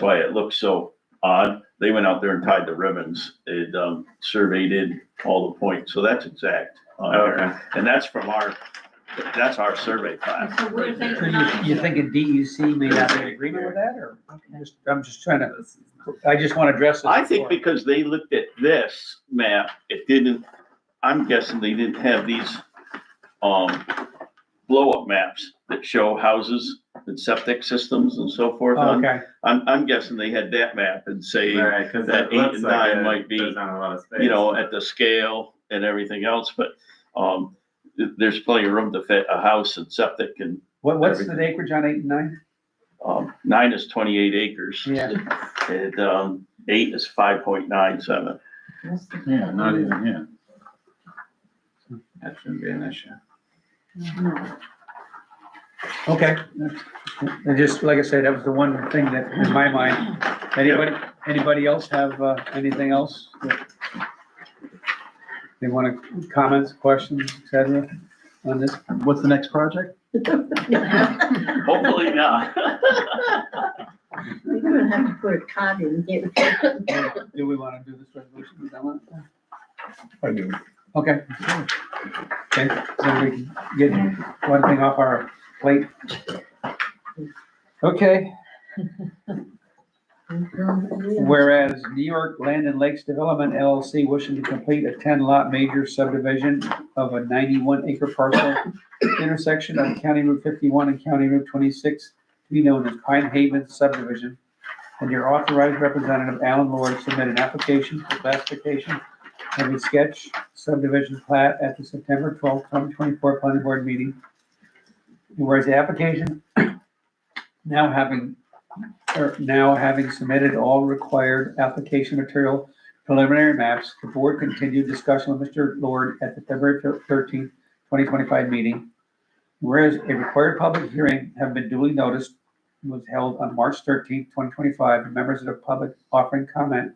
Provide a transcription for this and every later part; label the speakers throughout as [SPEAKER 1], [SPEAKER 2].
[SPEAKER 1] why it looks so odd. They went out there and tied the ribbons. It um, surveyed in all the points, so that's exact. on there.
[SPEAKER 2] Okay,
[SPEAKER 1] And that's from our, that's our survey class.
[SPEAKER 3] So we're
[SPEAKER 1] right there.
[SPEAKER 3] thinking-
[SPEAKER 4] So you, you thinking DUC E may not be in agreement with that, or, I'm just, I'm just trying to, I just wanna address this.
[SPEAKER 1] I think
[SPEAKER 4] before.
[SPEAKER 1] because they looked at this map, it didn't, I'm guessing they didn't have these, um, blow-up maps that show houses and septic systems and so forth
[SPEAKER 4] Oh,
[SPEAKER 1] on.
[SPEAKER 4] Okay,
[SPEAKER 1] I'm, I'm guessing they had that map and say, you
[SPEAKER 2] alright, cause
[SPEAKER 1] that
[SPEAKER 2] that
[SPEAKER 1] eight
[SPEAKER 2] looks
[SPEAKER 1] and
[SPEAKER 2] like
[SPEAKER 1] nine
[SPEAKER 2] it-
[SPEAKER 1] might be,
[SPEAKER 2] there's not a lot of space.
[SPEAKER 1] know, at the scale and everything else, but, um, th- there's plenty of room to fit a house and septic and,
[SPEAKER 4] what, what's the
[SPEAKER 1] Everything.
[SPEAKER 4] acreage on eight and nine?
[SPEAKER 1] um, nine is twenty-eight acres.
[SPEAKER 4] Yeah.
[SPEAKER 1] And, um, eight is five point nine seven.
[SPEAKER 5] Yeah, not even, yeah.
[SPEAKER 2] That shouldn't be an issue.
[SPEAKER 4] Okay. And just, like I said, that was the one thing that, in my mind, anybody, anybody else have, uh, anything else? that They wanna, comments, questions, et cetera, on this?
[SPEAKER 5] What's the next project?
[SPEAKER 1] Hopefully not.
[SPEAKER 3] We're gonna have to put a cot in here.
[SPEAKER 4] Do we wanna do this resolution? Is that one?
[SPEAKER 5] I do.
[SPEAKER 4] Okay. Okay, so we can get one thing off our plate. Okay, whereas New York Land and Lakes Development LLC wishing to complete a ten lot major subdivision of a ninety-one acre parcel intersection on County Route fifty-one and County Route twenty-six to be known as Pine Haven subdivision. And your authorized representative, Alan Lord, submit an application for classification of a sketch subdivision plat at the September twelfth, twenty twenty-four planning board meeting. And Whereas the application now having, or now having submitted all required application material preliminary maps, the board continued discussion with Mr. Lord at the February thirteenth, twenty twenty-five meeting. Whereas a required public hearing have been duly noticed and was held on March thirteenth, twenty twenty-five, and members of the public offering comment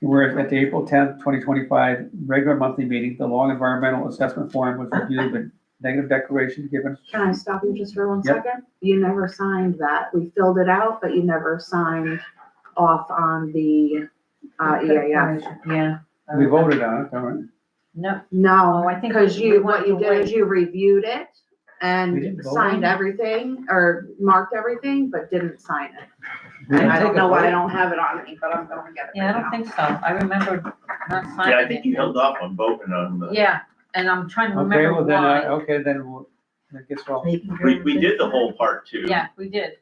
[SPEAKER 4] Whereas at the April tenth, twenty twenty-five regular monthly meeting, the long environmental assessment form was reviewed with negative declaration given.
[SPEAKER 6] Can I stop you just for one
[SPEAKER 4] Yep.
[SPEAKER 6] second? You never signed that. We filled it out, but you never signed off on the, uh, EAF.
[SPEAKER 3] Yeah.
[SPEAKER 4] We voted on it, all right?
[SPEAKER 3] No,
[SPEAKER 6] No,
[SPEAKER 3] Oh, I think
[SPEAKER 6] because
[SPEAKER 3] we
[SPEAKER 6] you, what
[SPEAKER 3] want
[SPEAKER 6] you
[SPEAKER 3] to
[SPEAKER 6] did is
[SPEAKER 3] wait.
[SPEAKER 6] you reviewed it
[SPEAKER 4] We
[SPEAKER 6] and
[SPEAKER 4] didn't vote on
[SPEAKER 6] signed
[SPEAKER 4] it?
[SPEAKER 6] everything or marked everything, but didn't sign it. And I don't know why I don't have it on me, but I'm gonna get it
[SPEAKER 3] yeah, I
[SPEAKER 6] right
[SPEAKER 3] don't
[SPEAKER 6] now.
[SPEAKER 3] think so. I remember not signing.
[SPEAKER 1] Yeah, I think
[SPEAKER 3] it.
[SPEAKER 1] you held off on voting on the,
[SPEAKER 3] Yeah, and I'm trying to
[SPEAKER 4] Okay,
[SPEAKER 3] remember
[SPEAKER 4] well then, uh, I-
[SPEAKER 3] why.
[SPEAKER 4] okay, then we'll, I guess well,
[SPEAKER 1] we, we did the whole part too.
[SPEAKER 3] Yeah, we did.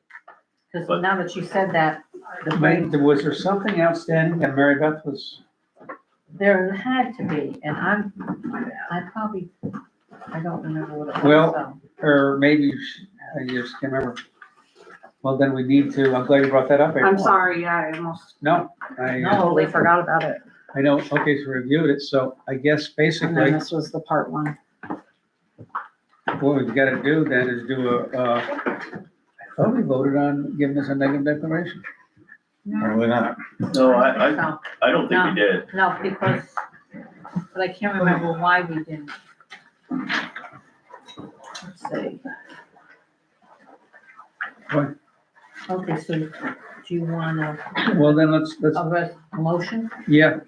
[SPEAKER 3] Cause
[SPEAKER 1] But-
[SPEAKER 3] now that you said that, the brain,
[SPEAKER 4] was there something outstanding that Mary Beth was?
[SPEAKER 3] there had to be, and I'm, I probably, I don't remember what it was.
[SPEAKER 4] Well,
[SPEAKER 3] so.
[SPEAKER 4] Or maybe you sh- I just can't remember. Well, then we need to, I'm glad you brought that up. April.
[SPEAKER 6] I'm sorry, yeah, I almost,
[SPEAKER 4] No, I,
[SPEAKER 3] No, they forgot about it.
[SPEAKER 4] I know, okay, so reviewed it, so I guess
[SPEAKER 3] And then
[SPEAKER 4] basically
[SPEAKER 3] this was the part one.
[SPEAKER 4] what we've gotta do then is do a, uh, I thought we voted on giving us a negative declaration.
[SPEAKER 5] Probably not.
[SPEAKER 1] No, I, I,
[SPEAKER 3] So,
[SPEAKER 1] I don't think we
[SPEAKER 3] No.
[SPEAKER 1] did.
[SPEAKER 3] No, because, but I can't remember why we didn't. Let's see.
[SPEAKER 4] What?
[SPEAKER 3] Okay, so do you want a,
[SPEAKER 4] Well, then let's, let's,
[SPEAKER 3] a res- a motion?
[SPEAKER 4] yeah,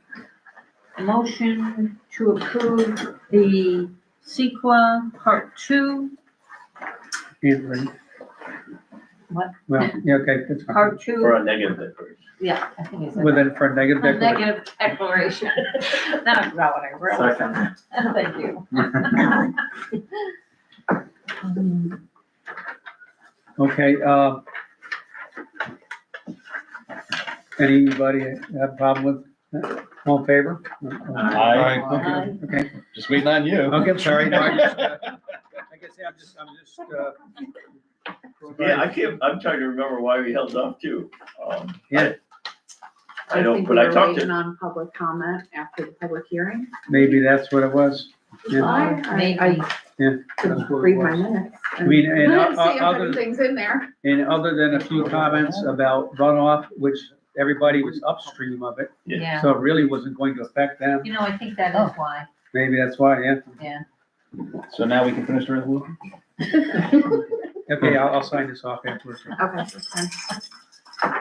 [SPEAKER 3] Motion to approve the sequa part two,
[SPEAKER 4] Anthony.
[SPEAKER 3] What?
[SPEAKER 4] Well, yeah, okay, that's fine.
[SPEAKER 3] part two,
[SPEAKER 1] Or a negative declaration.
[SPEAKER 3] yeah, I think it's. a-
[SPEAKER 4] Well, then for a negative
[SPEAKER 3] a
[SPEAKER 4] declaration.
[SPEAKER 3] Negative declaration. Now I forgot what I wrote.
[SPEAKER 2] Second,
[SPEAKER 3] Thank you.
[SPEAKER 4] Okay, um. Anybody have a problem with, that? all in favor?
[SPEAKER 5] Aye.
[SPEAKER 4] Okay,
[SPEAKER 3] Um,
[SPEAKER 4] okay,
[SPEAKER 5] Just waiting on you.
[SPEAKER 4] okay, I'm sorry. No, I just, uh, Like I say, I'm just, I'm just, uh.
[SPEAKER 1] Yeah, I can't, I'm trying to remember why we held off too. Um,
[SPEAKER 4] Yeah.
[SPEAKER 1] I
[SPEAKER 6] I
[SPEAKER 1] don't-
[SPEAKER 6] think
[SPEAKER 1] but
[SPEAKER 6] we
[SPEAKER 1] I
[SPEAKER 6] were
[SPEAKER 1] talked to-
[SPEAKER 6] waiting on public comment after the public hearing.
[SPEAKER 4] Maybe that's what it was. Yeah.
[SPEAKER 6] I, I, I
[SPEAKER 3] Maybe.
[SPEAKER 4] That's
[SPEAKER 6] could
[SPEAKER 4] what it
[SPEAKER 6] read my
[SPEAKER 4] was.
[SPEAKER 6] minutes.
[SPEAKER 4] I mean, and
[SPEAKER 6] I didn't
[SPEAKER 4] o- o-
[SPEAKER 6] see
[SPEAKER 4] other,
[SPEAKER 6] everything's in there.
[SPEAKER 4] and other than a few comments about runoff, which everybody was upstream of it,
[SPEAKER 3] Yeah,
[SPEAKER 4] so it really wasn't going to affect them.
[SPEAKER 3] you know, I think that
[SPEAKER 6] Oh.
[SPEAKER 3] is why,
[SPEAKER 4] Maybe that's why, yeah.
[SPEAKER 3] yeah.
[SPEAKER 5] So now we can finish the resolution?
[SPEAKER 4] Okay, I'll, I'll sign this off afterwards.
[SPEAKER 6] Okay. that's fine.